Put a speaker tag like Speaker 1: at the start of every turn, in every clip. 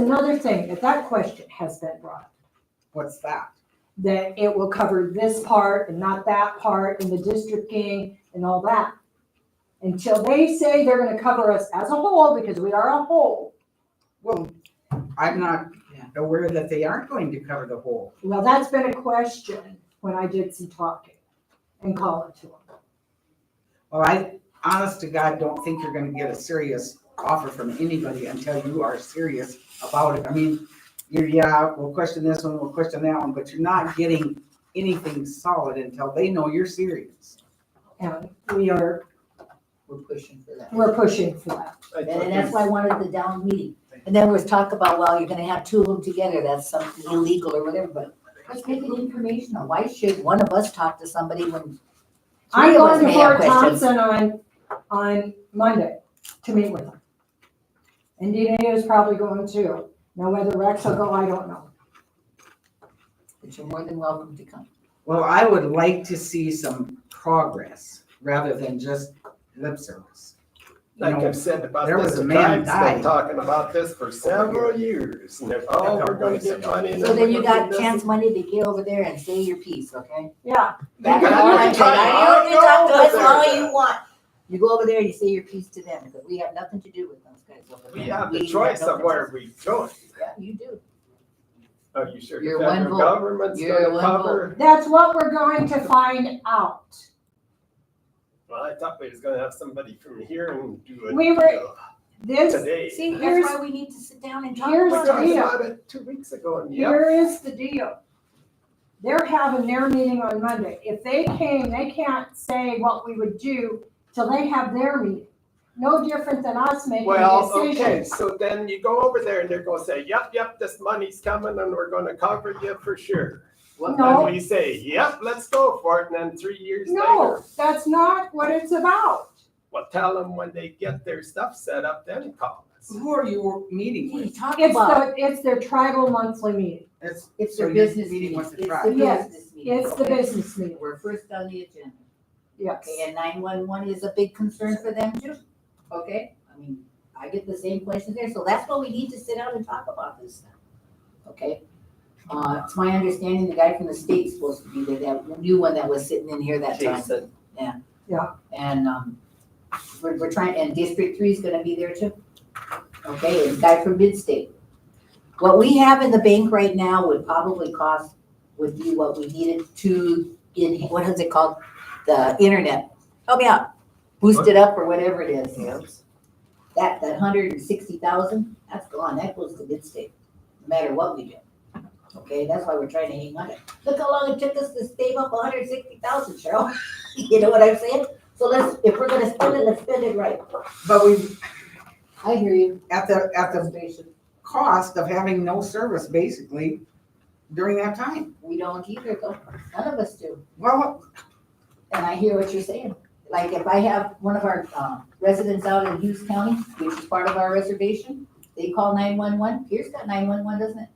Speaker 1: another thing, that that question has been brought up,
Speaker 2: What's that?
Speaker 1: that it will cover this part and not that part and the districting and all that. Until they say they're gonna cover us as a whole, because we are a whole,
Speaker 2: Well, I'm not
Speaker 3: Yeah.
Speaker 2: aware that they aren't going to cover the whole.
Speaker 1: well, that's been a question when I did some talking and calling to them.
Speaker 2: Well, I, honest to God, don't think you're gonna get a serious offer from anybody until you are serious about it. I mean, you're, yeah, we'll question this one, we'll question that one, but you're not getting anything solid until they know you're serious.
Speaker 1: And we are,
Speaker 3: We're pushing for that.
Speaker 1: we're pushing for that.
Speaker 4: And
Speaker 5: And that's why I wanted the down meeting. And there was talk about, well, you're gonna have two of them together, that's something illegal or whatever, but let's make it informational. Why should one of us talk to somebody when?
Speaker 1: I'm
Speaker 4: Three of us
Speaker 1: going to
Speaker 4: may have
Speaker 1: Fort
Speaker 4: questions.
Speaker 1: Thompson on, on Monday to meet with them. And DNA is probably going too. Now whether Rex will go, I don't know.
Speaker 4: But you're more than welcome to come.
Speaker 2: Well, I would like to see some progress rather than just lip service.
Speaker 5: Like I've said about
Speaker 2: There
Speaker 5: this,
Speaker 2: was a
Speaker 5: the
Speaker 2: man
Speaker 5: tribe's been
Speaker 2: died.
Speaker 5: talking about this for several years. And they're, oh, we're gonna get money. and
Speaker 4: So then you
Speaker 5: we're gonna
Speaker 4: got
Speaker 5: do this."
Speaker 4: chance money to get over there and say your piece, okay?
Speaker 1: Yeah,
Speaker 5: They
Speaker 4: That's
Speaker 5: got
Speaker 4: all
Speaker 5: your
Speaker 4: I'm saying.
Speaker 5: tribe.
Speaker 4: I know you talk
Speaker 5: I'll
Speaker 4: to
Speaker 5: go
Speaker 4: us
Speaker 5: there.
Speaker 4: all you want. You go over there, you say your piece to them, because we have nothing to do with those guys over there.
Speaker 5: We have the
Speaker 4: We
Speaker 5: choice
Speaker 4: no
Speaker 5: of where
Speaker 4: business.
Speaker 5: we join.
Speaker 4: Yeah, you do.
Speaker 5: Are you sure
Speaker 4: You're
Speaker 5: the
Speaker 4: one
Speaker 5: federal
Speaker 4: vote.
Speaker 5: government's
Speaker 4: You're
Speaker 5: gonna
Speaker 4: one
Speaker 5: cover?
Speaker 1: that's what we're going to find out.
Speaker 5: Well, I thought we was gonna have somebody from here and do it.
Speaker 1: We were-
Speaker 5: uh,
Speaker 1: This,
Speaker 5: Today.
Speaker 4: See,
Speaker 1: Here's-
Speaker 4: that's why we need to sit down and talk
Speaker 1: here's
Speaker 5: We
Speaker 4: about
Speaker 1: the
Speaker 4: it.
Speaker 5: talked
Speaker 1: deal.
Speaker 5: about it two weeks ago and yep.
Speaker 1: here is the deal. They're having their meeting on Monday. If they came, they can't say what we would do till they have their meeting. No different than us making a
Speaker 5: Well,
Speaker 1: decision.
Speaker 5: okay, so then you go over there and they're gonna say, yep, yep, this money's coming and we're gonna cover you for sure.
Speaker 4: What-
Speaker 1: No.
Speaker 5: And we say, yep, let's go for it, and then three years
Speaker 1: No,
Speaker 5: later,
Speaker 1: that's not what it's about.
Speaker 5: well, tell them when they get their stuff set up, then call us.
Speaker 2: Who are you meeting
Speaker 4: What are you
Speaker 2: with?
Speaker 4: talking
Speaker 1: It's
Speaker 4: about?
Speaker 1: the, it's their tribal monthly meeting.
Speaker 2: It's,
Speaker 4: It's
Speaker 2: So
Speaker 4: their
Speaker 2: you're
Speaker 4: business
Speaker 2: meeting
Speaker 4: meeting.
Speaker 2: with the
Speaker 4: It's
Speaker 2: tribe.
Speaker 4: their
Speaker 1: Yes,
Speaker 4: business meeting.
Speaker 1: It's the
Speaker 4: Okay.
Speaker 1: business meeting,
Speaker 4: We're first on the agenda.
Speaker 1: yes.
Speaker 4: Okay, and nine-one-one is a big concern for them too, okay? I mean, I get the same questions there, so that's why we need to sit down and talk about this stuff, okay? Uh, it's my understanding the guy from the state's supposed to be there, that new one that was sitting in here that time.
Speaker 3: Jason.
Speaker 4: Yeah.
Speaker 1: Yeah.
Speaker 4: And, um, we're, we're trying, and District Three's gonna be there too. Okay, and guy from Midstate. What we have in the bank right now would probably cost, would be what we needed to, in, what is it called? The internet, help me out, boost it up or whatever it is. That, that hundred and sixty thousand, that's gone, that goes to Midstate, no matter what we do. Okay, that's why we're trying to hang on it. Look how long it took us to save up hundred and sixty thousand, Cheryl. You know what I'm saying? So let's, if we're gonna spend it, let's spend it right.
Speaker 2: but we,
Speaker 4: I hear you.
Speaker 2: at the, at the cost of having no service basically during that time.
Speaker 4: We don't either though, none of us do.
Speaker 2: Well,
Speaker 4: And I hear what you're saying. Like if I have one of our uh, residents out in Hughes County, which is part of our reservation, they call nine-one-one, Pierce got nine-one-one, doesn't it?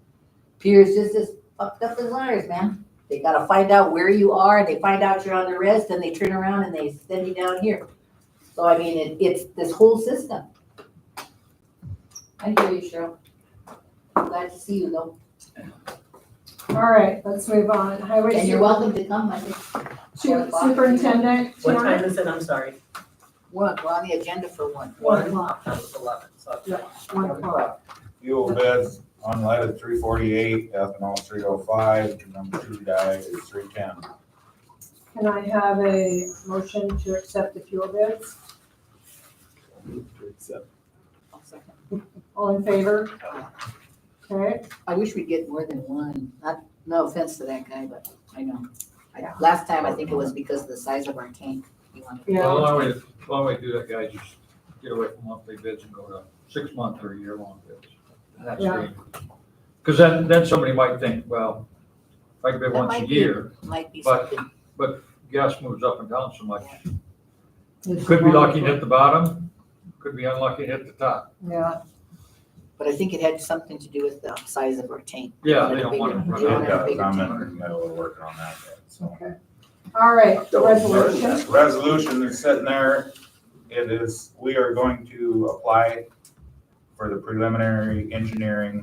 Speaker 4: Pierce just as fucked up as ours, man. They gotta find out where you are, and they find out you're on the res, then they turn around and they send you down here. So I mean, it, it's this whole system. I hear you, Cheryl. Glad to see you though,
Speaker 1: All right, let's move on. Highway
Speaker 4: and you're
Speaker 1: Super-
Speaker 4: welcome to come, I think.
Speaker 1: Su- Superintendent,
Speaker 3: What
Speaker 1: Tiana?
Speaker 3: time is it? I'm sorry.
Speaker 4: One, we're on the agenda for one.
Speaker 3: One o'clock, that was eleven, so.
Speaker 1: one o'clock.
Speaker 6: Fuel bids, unleaded three forty-eight, ethanol three oh five, number two guy is three ten.
Speaker 1: Can I have a motion to accept the fuel bids? Mm-hmm.
Speaker 5: uh,
Speaker 1: All in favor?
Speaker 3: Oh.
Speaker 1: Okay,
Speaker 4: I wish we'd get more than one. Not, no offense to that guy, but I know. I-
Speaker 1: Yeah.
Speaker 4: Last time, I think it was because of the size of our tank. You wanted-
Speaker 1: yeah,
Speaker 7: Well,
Speaker 6: Oh,
Speaker 7: While we, while we do that, guys, just get away from monthly bids and go to six-month or year-long bids. That's
Speaker 1: Yeah.
Speaker 7: great. Because then, then somebody might think, well, if I bid
Speaker 4: That
Speaker 7: once a
Speaker 4: might be-
Speaker 7: year,
Speaker 4: Might be
Speaker 7: But-
Speaker 4: something.
Speaker 7: gas moves up and down so much.
Speaker 1: It's
Speaker 7: Could be lucky to
Speaker 1: wonderful.
Speaker 7: hit the bottom, could be unlucky to hit the top.
Speaker 1: yeah,
Speaker 4: But I think it had something to do with the size of our tank.
Speaker 7: Yeah, they don't want to
Speaker 4: They
Speaker 7: run
Speaker 4: want
Speaker 7: out.
Speaker 4: a bigger
Speaker 6: I'm
Speaker 4: tank.
Speaker 6: in the middle of working on that, yet, so.
Speaker 1: okay. All right,
Speaker 5: Don't learn
Speaker 1: resolution.
Speaker 5: that.
Speaker 6: Resolution is sitting there, it is, we are going to apply for the preliminary engineering